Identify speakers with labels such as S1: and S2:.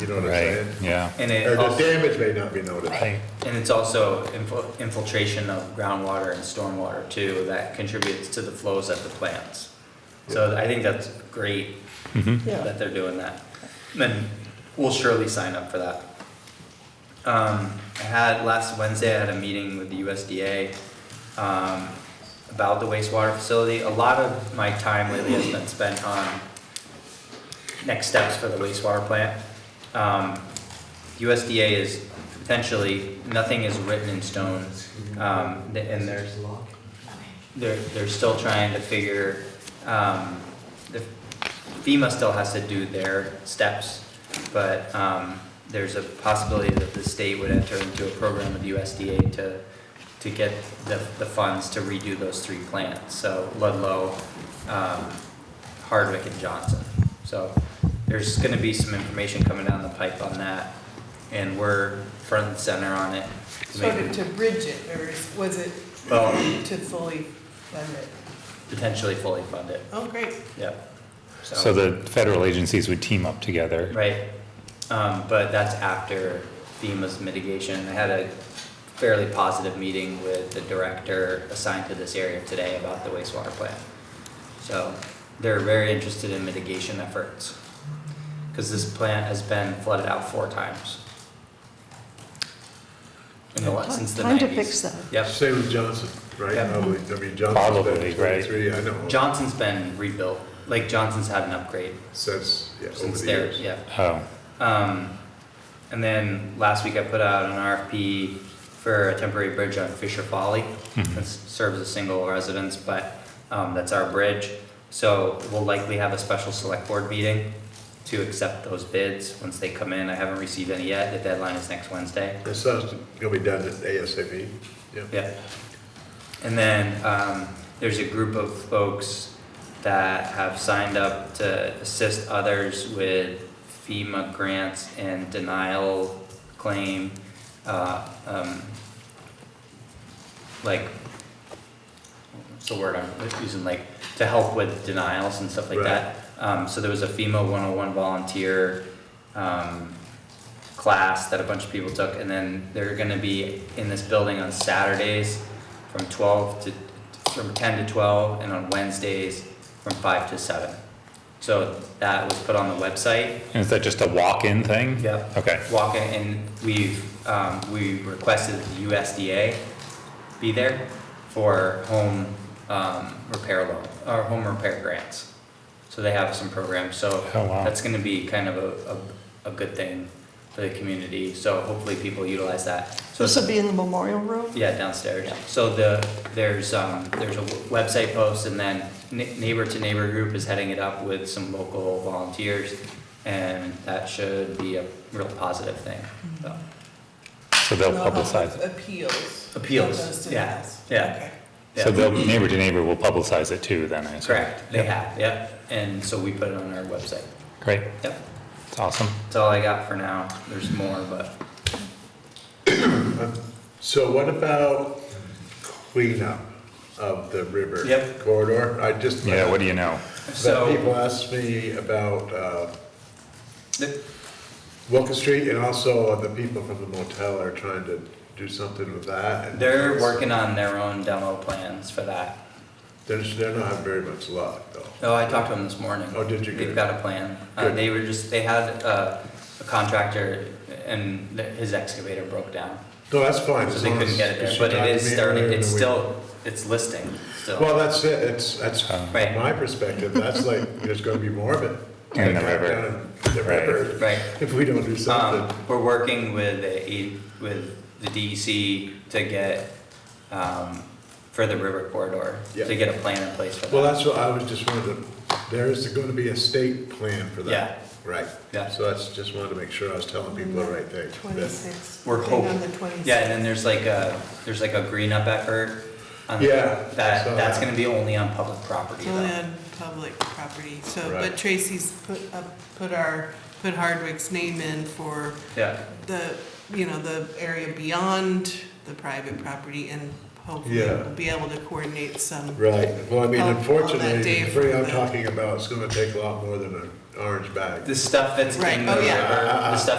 S1: you know what I'm
S2: Right,
S1: saying?
S2: yeah.
S3: And
S1: Or
S3: it
S1: the
S3: also,
S1: damage may not be noticed.
S2: Right.
S3: and it's also infil- infiltration of groundwater and stormwater too, that contributes to the flows at the plants. So I think that's great that they're doing that. Then we'll surely sign up for that. Um, I had, last Wednesday, I had a meeting with the USDA, um, about the wastewater facility. A lot of my time lately has been spent on next steps for the wastewater plant. Um, USDA is potentially, nothing is written in stone, um, th- and there's, they're, they're still trying to figure, um, the FEMA still has to do their steps, but, um, there's a possibility that the state would enter into a program with USDA to, to get the, the funds to redo those three plants, so Ludlow, um, Hardwick and Johnson. So there's gonna be some information coming down the pipe on that, and we're front and center on it.
S4: Sort of to bridge it, or is- was it
S3: Well,
S4: to fully fund it?
S3: potentially fully fund it,
S4: Oh, great.
S3: yep.
S2: So the federal agencies would team up together.
S3: Right, um, but that's after FEMA's mitigation. I had a fairly positive meeting with the director assigned to this area today about the wastewater plant. So they're very interested in mitigation efforts, because this plant has been flooded out four times. In the, la- since the
S5: Time
S3: nineties.
S5: to fix that.
S3: Yep,
S1: Same with Johnson, right?
S3: Yeah.
S1: Probably, I mean, Johnson's
S2: Probably,
S1: been
S2: right.
S1: 23, I know,
S3: Johnson's been rebuilt, like Johnson's had an upgrade
S1: since, yeah, over
S3: since
S1: the
S3: there,
S1: years.
S3: yeah.
S2: Oh,
S3: Um, and then last week I put out an RFP for a temporary bridge on Fisher Folly.
S2: Mhm.
S3: That serves a single residence, but, um, that's our bridge. So we'll likely have a special select board meeting to accept those bids once they come in. I haven't received any yet. The deadline is next Wednesday.
S1: This stuff's gonna be done at ASAP, yeah.
S3: Yeah. And then um, there's a group of folks that have signed up to assist others with FEMA grants and denial claim, uh, um, like, what's the word I'm using, like, to help with denials and stuff like
S1: Right.
S3: that. Um, So there was a FEMA 101 volunteer um, class that a bunch of people took, and then they're gonna be in this building on Saturdays from twelve to, from ten to twelve, and on Wednesdays from five to seven. So that was put on the website,
S2: and is that just a walk-in thing?
S3: Yep.
S2: Okay,
S3: walk in, and we've, um, we requested the USDA be there for home, um, repair loan, or home repair grants. So they have some programs, so
S2: Oh, wow.
S3: that's gonna be kind of a, a, a good thing for the community, so hopefully people utilize that. So
S5: This will be in the memorial room?
S3: yeah, downstairs. So the, there's, um, there's a website post and then Ne- Neighbor to Neighbor Group is heading it up with some local volunteers. And that should be a real positive thing, so.
S2: so they'll
S4: We'll have
S2: publicize it.
S4: Appeals.
S3: Appeals,
S4: opposed to
S3: yeah,
S4: denials.
S3: yeah.
S4: Okay.
S2: So
S3: yeah.
S2: they'll, neighbor to neighbor will publicize it too then, I assume.
S3: Correct, they have, yep. And so we put it on our website.
S2: Great,
S3: Yep,
S2: it's awesome.
S3: that's all I got for now. There's more, but
S1: So what about cleanup of the river?
S3: Yep.
S1: Corridor? I just.
S2: Yeah, what do you know?
S1: But
S3: so.
S1: people ask me about, uh,
S3: the-
S1: Wilton Street, and also the people from the motel are trying to do something with that. and
S3: They're
S1: it's-
S3: working on their own demo plans for that.
S1: They're, they're not having very much luck, though.
S3: Oh, I talked to them this morning.
S1: Oh, did you?
S3: They've
S1: Good.
S3: got a plan. Uh,
S1: Good.
S3: they were just, they had uh, a contractor and th- his excavator broke down.
S1: No, that's fine.
S3: So
S1: as
S3: they
S1: long
S3: couldn't
S1: as-
S3: get it there,
S1: she
S3: but
S1: talked
S3: it
S1: to
S3: is
S1: me
S3: starting,
S1: earlier in
S3: it's
S1: the week.
S3: still, it's listing still.
S1: Well, that's it, it's, that's
S3: Right.
S1: my perspective, that's like, there's gonna be more of it.
S2: In the
S1: Like,
S2: river.
S1: down in The
S2: Right.
S1: river.
S3: Right.
S1: If we don't do something.
S3: Um, we're working with the, A- with the DEC to get, um, for the river corridor,
S1: Yeah.
S3: to get a plan in place for
S1: Well,
S3: that.
S1: that's what I was just wanted to, there is gonna be a state plan for that. Right.
S3: Yeah.
S1: So that's, just wanted to make sure I was telling people the right thing. that-
S4: Twenty-six.
S3: We're
S4: Thing
S3: hoping.
S4: On the twenty-sixth.
S3: Yeah, and then there's like a, there's like a green up effort. on-
S1: Yeah, I
S3: That,
S1: saw
S3: that's
S1: that.
S3: gonna be only on public property though.
S4: Only on public property, so,
S1: Right.
S4: but Tracy's put up, put our, put Hardwick's name in for
S3: Yeah,
S4: the, you know, the area beyond the private property and hopefully
S1: Yeah.
S4: we'll be able to coordinate some.
S1: Right, well, I mean,
S4: Oh, on that
S1: unfortunately,
S4: day
S1: the free I'm
S4: for the-
S1: talking about, it's gonna take a lot more than a orange bag.
S3: The stuff that's
S4: Right,
S3: in the
S4: oh,
S3: river,
S4: yeah.
S1: Uh,
S3: the stuff